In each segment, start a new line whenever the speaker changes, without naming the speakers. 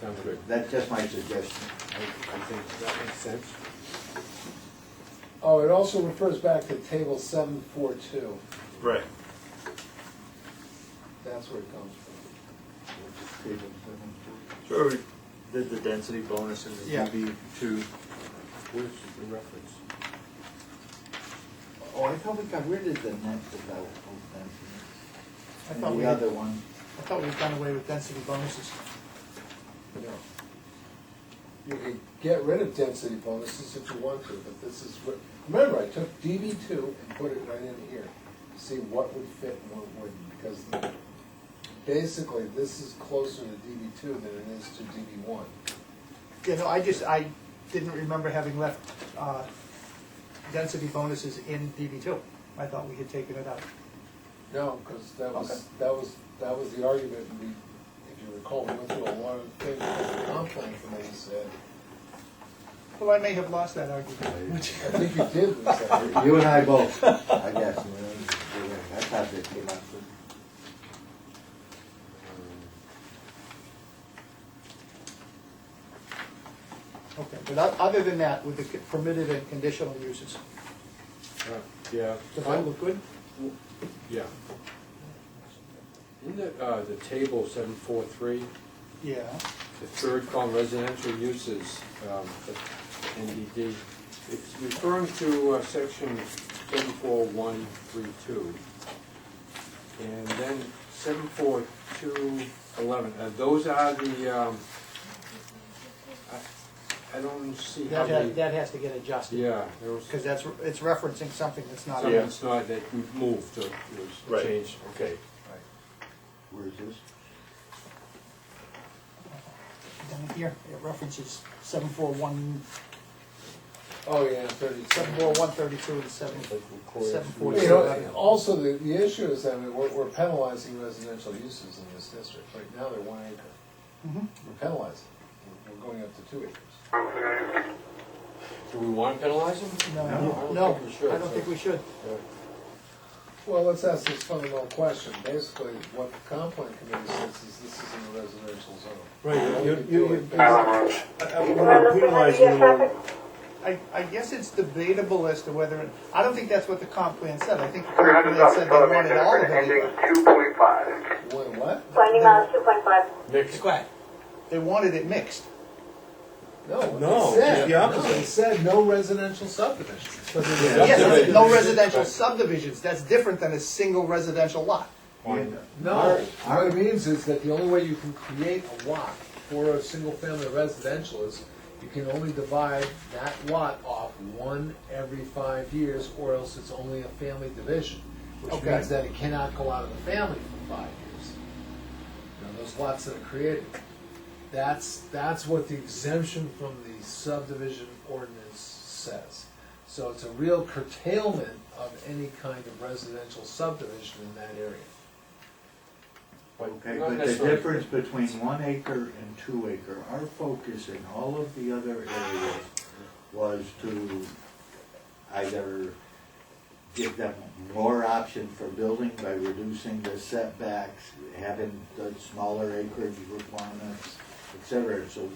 Sounds good.
That's just my suggestion.
I, I think that makes sense.
Oh, it also refers back to table seven four two,
Right.
that's where it comes from.
So we did the density bonus in
Yeah.
the DB two.
Where's the reference?
Oh, I thought we got rid of the net development,
I thought
and
we,
the
had-
other one.
I thought we'd done away with density bonuses.
No. You can get rid of density bonuses if you want to, but this is what, remember, I took DB two and put it right in here, to see what would fit and what wouldn't, because basically, this is closer to DB two than it is to DB one.
Yeah, no, I just, I didn't remember having left, uh, density bonuses in DB two. I thought we had taken it out.
No, because that
Okay.
was, that was, that was the argument, we, if you recall, we went through a lot of things, that the comp plan committee said,
Well, I may have lost that argument. which-
I think you did, lose that argument.
You and I both, I guess. we were- we were- That's how they came up with.
Okay, but o- other than that, with the c- permitted and conditional uses,
Uh, Yeah.
does that look good?
Yeah. In the, uh, the table seven four three,
Yeah.
the third column residential uses, um, the NDD, it's referring to uh, section seven four one three two. And then seven four two eleven, uh, those are the, um, I, I don't see how
That,
they.
ha- that has to get adjusted.
Yeah, there was.
Because that's, re- it's referencing something that's not.
So
on it.
it's not that we moved, or it was
Right.
changed, okay.
Where's this?
Down here, it references seven four one,
Oh, yeah, thirty.
seven four one thirty-two and seven, seven
Well,
forty-two.
You know, and also, the, the issue is that we're, we're penalizing residential uses in this district. Right now, they're one acre.
Mhm.
We're penalizing. We're- We're going up to two acres.
Do we want to penalize them?
No, no, I don't think we should.
Well, let's ask this fundamental question. Basically, what the comp plan committee says is this is in the residential zone.
Right,
you- you- you-
we're penalizing them.
I, I guess it's debatable as to whether, it- I don't think that's what the comp plan said. I think the comp plan said they wanted all of it.
two point five.
What, what?
Finding miles two point five.
Next,
They wanted it mixed.
No, what
No,
they said,
the
no,
opposite.
they said no residential subdivision.
Yes, it's no
Subdivisions.
residential subdivisions. That's different than a single residential lot.
No, what it means is that the only way you can create a lot for a single-family residential is you can only divide that lot off one every five years, or else it's only a family division, which
Okay.
means that it cannot go out of the family for five years. Now, those lots that are created, that's, that's what the exemption from the subdivision ordinance says. So it's a real curtailment of any kind of residential subdivision in that area.
Okay,
Not
but the
necessarily.
difference between one acre and two acre, our focus in all of the other areas was to either give them more option for building by reducing the setbacks, having the smaller acreage requirements, et cetera. So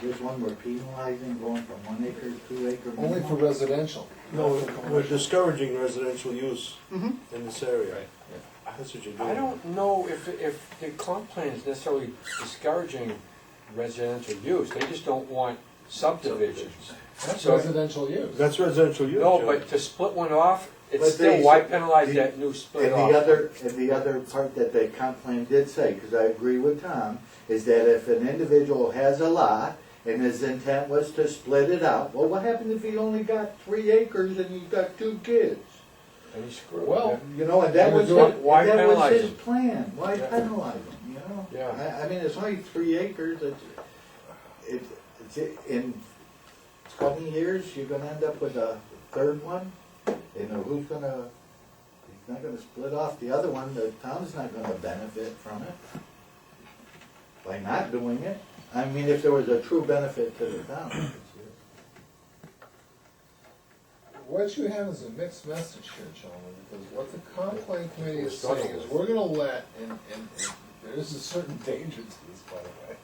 this one, we're penalizing going from one acre to two acre.
Only for
minimum?
residential.
No, we're discouraging residential use
Mhm.
in this area. That's what you're doing.
Mm-hmm. I don't know if, if the comp plan is necessarily discouraging residential use, they just don't want subdivisions.
That's
So-
residential use.
That's residential use.
No,
Joe.
but to split one off, it's
But
still,
they-
why penalize
the-
that new split
And
off?
the other, and the other part that the comp plan did say, because I agree with Tom, is that if an individual has a lot and his intent was to split it out, well, what happens if he only got three acres and he's got two kids?
And you screw it,
Well,
You know, and that
Why
was his,
do it?
that
Why
was
penalize
his
him?
plan, why
Yeah.
penalize him, you know?
Yeah.
I, I mean, it's only three acres, it's, it's, it's, in twenty years, you're gonna end up with a third one, you know, who's gonna, he's not gonna split off the other one, the town's not gonna benefit from it by not doing it. I mean, if there was a true benefit to the town. it's-
What you have is a mixed message here, gentlemen, because what the complaint committee is
We're
saying is,
struggling.
we're gonna let, and, and, and there is a certain danger to this, by the way.